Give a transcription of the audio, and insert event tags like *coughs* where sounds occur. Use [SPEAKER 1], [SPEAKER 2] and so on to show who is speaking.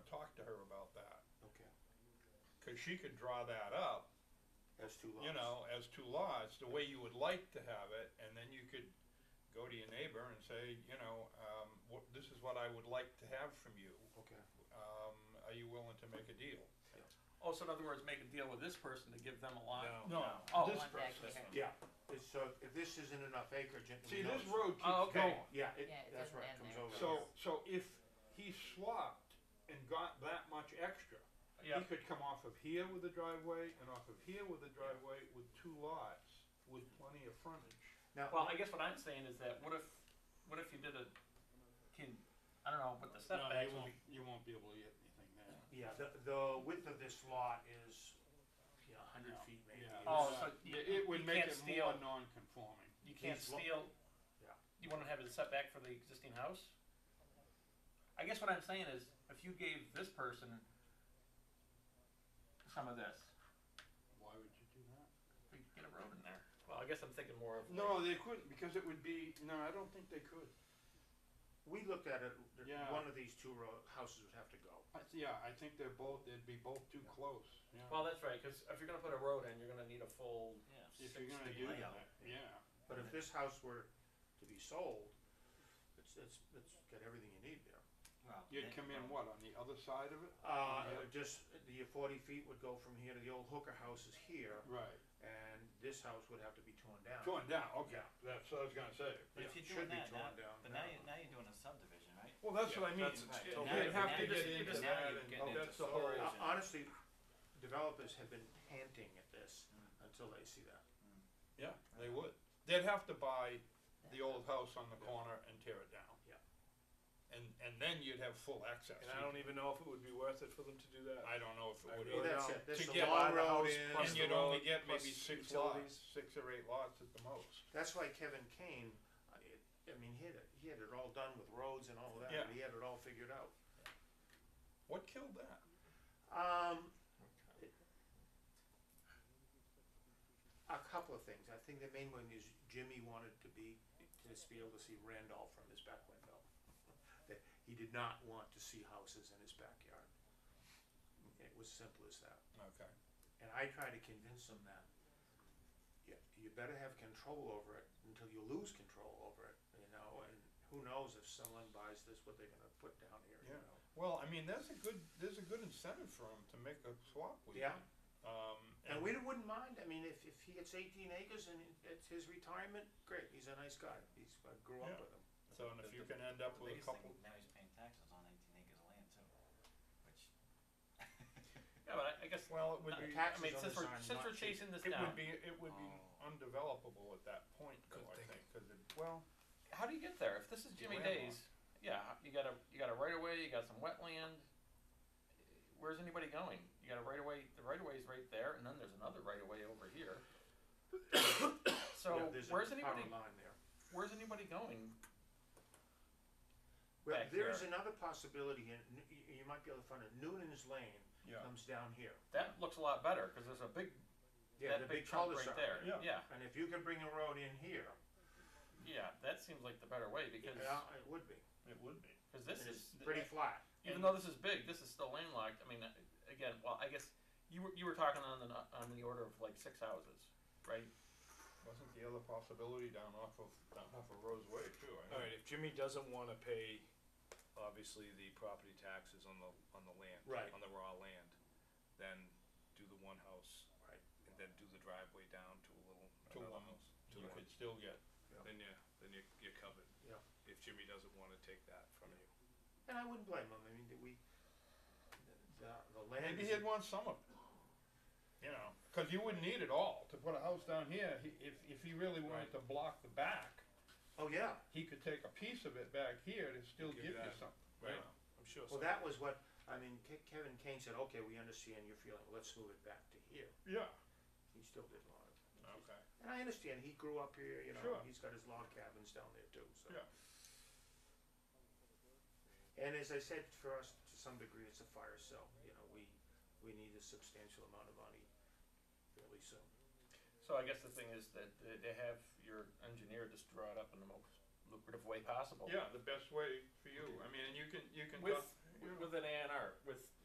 [SPEAKER 1] cause she could draw that up,
[SPEAKER 2] That's two lots.
[SPEAKER 1] you know, as two lots, the way you would like to have it, and then you could go to your neighbor and say, you know, um, what, this is what I would like to have from you,
[SPEAKER 2] Okay.
[SPEAKER 1] um, are you willing to make a deal?
[SPEAKER 3] Oh, so in other words, make a deal with this person to give them a lot?
[SPEAKER 1] No,
[SPEAKER 3] Oh,
[SPEAKER 1] this
[SPEAKER 4] one back
[SPEAKER 1] person.
[SPEAKER 4] here.
[SPEAKER 2] Yeah, it's, so if this isn't enough acreage, it.
[SPEAKER 1] See,
[SPEAKER 2] we
[SPEAKER 1] this
[SPEAKER 2] know-
[SPEAKER 1] road keeps
[SPEAKER 3] Oh, okay.
[SPEAKER 1] going.
[SPEAKER 2] Yeah, it,
[SPEAKER 4] Yeah, it
[SPEAKER 2] that's
[SPEAKER 4] doesn't
[SPEAKER 2] right,
[SPEAKER 4] end
[SPEAKER 2] comes
[SPEAKER 4] there.
[SPEAKER 2] over.
[SPEAKER 1] So, so if he swapped and got that much extra, he
[SPEAKER 3] Yeah,
[SPEAKER 1] could come off of here with a driveway and off of here with a driveway with two lots with plenty of frontage.
[SPEAKER 2] Now,
[SPEAKER 3] well, I guess what I'm saying is that what if, what if you did a, can, I don't know, what the
[SPEAKER 5] No,
[SPEAKER 3] setbacks
[SPEAKER 5] you won't,
[SPEAKER 3] would be.
[SPEAKER 5] you won't be able to get anything there.
[SPEAKER 2] yeah, the, the width of this lot is, you know, a hundred
[SPEAKER 5] Yeah.
[SPEAKER 2] feet maybe.
[SPEAKER 5] Yeah.
[SPEAKER 3] Oh,
[SPEAKER 2] It's-
[SPEAKER 3] so
[SPEAKER 5] Yeah,
[SPEAKER 3] you,
[SPEAKER 5] It
[SPEAKER 3] you
[SPEAKER 5] would make
[SPEAKER 3] can't
[SPEAKER 5] it
[SPEAKER 3] steal,
[SPEAKER 5] more non-conforming.
[SPEAKER 3] you can't
[SPEAKER 2] These lo-
[SPEAKER 3] steal.
[SPEAKER 2] Yeah.
[SPEAKER 3] You wanna have a setback for the existing house? I guess what I'm saying is, if you gave this person some of this,
[SPEAKER 5] Why would you do that?
[SPEAKER 3] we could get a road in there. Well, I guess I'm thinking more of. like-
[SPEAKER 1] No, they couldn't, because it would be, no, I don't think they could.
[SPEAKER 2] We looked at it, th-
[SPEAKER 5] Yeah.
[SPEAKER 2] one of these two row, houses would have to go.
[SPEAKER 5] I th- Yeah, I think they're both, they'd be both too close, yeah.
[SPEAKER 6] Well, that's right, because if you're gonna put a road in, you're gonna need a full.
[SPEAKER 5] If you're gonna
[SPEAKER 2] six-day
[SPEAKER 5] do
[SPEAKER 2] layout.
[SPEAKER 5] that, yeah.
[SPEAKER 2] But if this house were to be sold, it's, it's, it's got everything you need there.
[SPEAKER 5] You'd come in what, on the other side of it?
[SPEAKER 2] Uh,
[SPEAKER 5] Yeah.
[SPEAKER 2] it would just, the forty feet would go from here to the old Hooker house is here,
[SPEAKER 5] Right.
[SPEAKER 2] and this house would have to be torn down.
[SPEAKER 1] Torn down, okay,
[SPEAKER 2] Yeah.
[SPEAKER 1] that's what I was gonna say.
[SPEAKER 7] But if
[SPEAKER 2] Yeah,
[SPEAKER 7] you're
[SPEAKER 2] should
[SPEAKER 7] doing
[SPEAKER 2] be
[SPEAKER 7] that, now,
[SPEAKER 2] torn down
[SPEAKER 7] but now
[SPEAKER 2] now.
[SPEAKER 7] you're, now you're doing a subdivision, right?
[SPEAKER 1] Well, that's what I mean,
[SPEAKER 5] that's a
[SPEAKER 7] Right.
[SPEAKER 5] totally
[SPEAKER 1] they'd have to
[SPEAKER 7] Now
[SPEAKER 1] get
[SPEAKER 7] you're
[SPEAKER 1] into
[SPEAKER 7] just-
[SPEAKER 1] that,
[SPEAKER 7] now you're
[SPEAKER 1] and
[SPEAKER 7] getting
[SPEAKER 1] that's the
[SPEAKER 7] into
[SPEAKER 1] whole,
[SPEAKER 7] subdivision.
[SPEAKER 2] Uh, Honestly, developers have been panting at this until they see that.
[SPEAKER 1] yeah, they would. They'd have to buy the old house on the corner and tear it down.
[SPEAKER 2] Yeah.
[SPEAKER 1] And, and then you'd have full access.
[SPEAKER 8] And I don't even know if it would be worth it for them to do that.
[SPEAKER 1] I don't know if it
[SPEAKER 8] I
[SPEAKER 1] would.
[SPEAKER 8] really
[SPEAKER 2] that's
[SPEAKER 8] don't.
[SPEAKER 2] it, this
[SPEAKER 1] To
[SPEAKER 2] is a
[SPEAKER 1] get
[SPEAKER 2] long
[SPEAKER 8] out of the
[SPEAKER 2] road
[SPEAKER 8] house,
[SPEAKER 2] in.
[SPEAKER 8] plus
[SPEAKER 1] And
[SPEAKER 8] the
[SPEAKER 1] you'd only
[SPEAKER 8] road,
[SPEAKER 1] get maybe
[SPEAKER 8] plus
[SPEAKER 1] six lots,
[SPEAKER 8] utilities.
[SPEAKER 1] six or eight lots at the most.
[SPEAKER 2] That's why Kevin Kane, I, it- I mean, he had it, he had it all done with roads and all of that,
[SPEAKER 1] Yeah.
[SPEAKER 2] but he had it all figured out.
[SPEAKER 1] What killed that?
[SPEAKER 2] Um, a couple of things, I think the main one is Jimmy wanted to be, to just be able to see Randolph from his back window. That he did not want to see houses in his backyard. It was simple as that.
[SPEAKER 1] Okay.
[SPEAKER 2] And I try to convince them that you, you better have control over it until you lose control over it, you know, and who knows if someone buys this, what they're gonna put down here, you
[SPEAKER 1] Yeah.
[SPEAKER 2] know?
[SPEAKER 1] Well, I mean, that's a good, there's a good incentive for him to make a swap with you.
[SPEAKER 2] Yeah,
[SPEAKER 1] Um,
[SPEAKER 2] and we wouldn't mind, I mean, if, if he gets eighteen acres and it's his retirement, great, he's a nice guy, he's, I grew up
[SPEAKER 1] Yeah.
[SPEAKER 2] with him.
[SPEAKER 1] So, and if you can end up
[SPEAKER 7] The
[SPEAKER 1] with a
[SPEAKER 7] biggest
[SPEAKER 1] couple,
[SPEAKER 7] thing, now he's paying taxes on eighteen acres of land too, which.
[SPEAKER 3] Yeah, but I, I guess,
[SPEAKER 1] well, it would
[SPEAKER 3] Uh,
[SPEAKER 1] be,
[SPEAKER 2] Taxes
[SPEAKER 3] I mean,
[SPEAKER 2] on
[SPEAKER 3] since
[SPEAKER 2] the
[SPEAKER 3] we're,
[SPEAKER 2] sign,
[SPEAKER 3] since
[SPEAKER 2] not
[SPEAKER 3] we're
[SPEAKER 2] cheap.
[SPEAKER 3] chasing this
[SPEAKER 1] it
[SPEAKER 3] down,
[SPEAKER 1] would be, it would be
[SPEAKER 7] Oh.
[SPEAKER 1] undevelopable at that point, though,
[SPEAKER 8] Good
[SPEAKER 1] I
[SPEAKER 8] thinking.
[SPEAKER 1] think, cause it, well,
[SPEAKER 3] how do you get there? If this is Jimmy
[SPEAKER 1] landlocked.
[SPEAKER 3] Day's, yeah, you got a you got a right of way, you got some wetland. Where's anybody going? You got a right of way. The right of way is right there, and then there's another right of way over here.
[SPEAKER 8] *coughs*
[SPEAKER 3] so
[SPEAKER 2] Yeah, there's a
[SPEAKER 3] where's
[SPEAKER 2] power
[SPEAKER 3] anybody?
[SPEAKER 2] Line there.
[SPEAKER 3] Where's anybody going?
[SPEAKER 2] Well,
[SPEAKER 3] back
[SPEAKER 2] there is
[SPEAKER 3] there.
[SPEAKER 2] another possibility, and you, you might be able to find it, Noonan's Lane
[SPEAKER 1] yeah.
[SPEAKER 2] comes down here.
[SPEAKER 3] That looks a lot better because there's a big
[SPEAKER 2] Yeah,
[SPEAKER 3] that
[SPEAKER 2] the
[SPEAKER 3] big,
[SPEAKER 2] big
[SPEAKER 3] chunk
[SPEAKER 2] cul-de-sac.
[SPEAKER 3] right there.
[SPEAKER 1] Yeah.
[SPEAKER 3] yeah,
[SPEAKER 2] And if you can bring a road in here,
[SPEAKER 3] yeah. That seems like the better way because
[SPEAKER 2] yeah, it would be,
[SPEAKER 1] It would be.
[SPEAKER 3] because this
[SPEAKER 2] and
[SPEAKER 3] is
[SPEAKER 2] it's pretty flat.
[SPEAKER 3] even though this is big, this is still landlocked. I mean, uh, again, well, I guess you were you were talking on the nu- on the order of like six houses, right?
[SPEAKER 1] Wasn't the other possibility down off of, down off of Roseway too, I know.
[SPEAKER 8] Alright, if Jimmy doesn't wanna pay, obviously, the property taxes on the, on the land.
[SPEAKER 2] Right.
[SPEAKER 8] On the raw land, then do the one house.
[SPEAKER 2] Right.
[SPEAKER 8] And then do the driveway down to a little,
[SPEAKER 1] To one.
[SPEAKER 8] another house. To
[SPEAKER 1] You
[SPEAKER 8] one.
[SPEAKER 1] could still get,
[SPEAKER 8] Then you, then you, you're covered.
[SPEAKER 2] Yeah.
[SPEAKER 8] If Jimmy doesn't wanna take that from you.
[SPEAKER 2] And I wouldn't blame him, I mean, that we, the, the land
[SPEAKER 1] maybe
[SPEAKER 2] is,
[SPEAKER 1] he'd want some of it. You know, cause you wouldn't need it all to put a house down here, he, if, if he really wanted
[SPEAKER 8] Right.
[SPEAKER 1] to block the back,
[SPEAKER 2] oh, yeah,
[SPEAKER 1] he could take a piece of it back here to still
[SPEAKER 8] Give
[SPEAKER 1] give you
[SPEAKER 8] that,
[SPEAKER 1] something.
[SPEAKER 8] Right. I'm sure so.
[SPEAKER 2] well, that was what, I mean, Ke- Kevin Kane said, okay, we understand your feeling, let's move it back to here,
[SPEAKER 1] Yeah,
[SPEAKER 2] he still didn't want it.
[SPEAKER 1] okay.
[SPEAKER 2] And I understand, he grew up here, you know,
[SPEAKER 1] Sure.
[SPEAKER 2] he's got his log cabins down there too, so.
[SPEAKER 1] Yeah.
[SPEAKER 2] And as I said, for us, to some degree, it's a fire sale, you know, we, we need a substantial amount of money fairly soon.
[SPEAKER 3] So I guess the thing is that they they have your engineer just draw it up in the most lucrative way possible.
[SPEAKER 1] Oh. Yeah, the best way for you, I mean, and you can, you can.
[SPEAKER 3] With
[SPEAKER 1] dot- you know,
[SPEAKER 6] With an A and R, with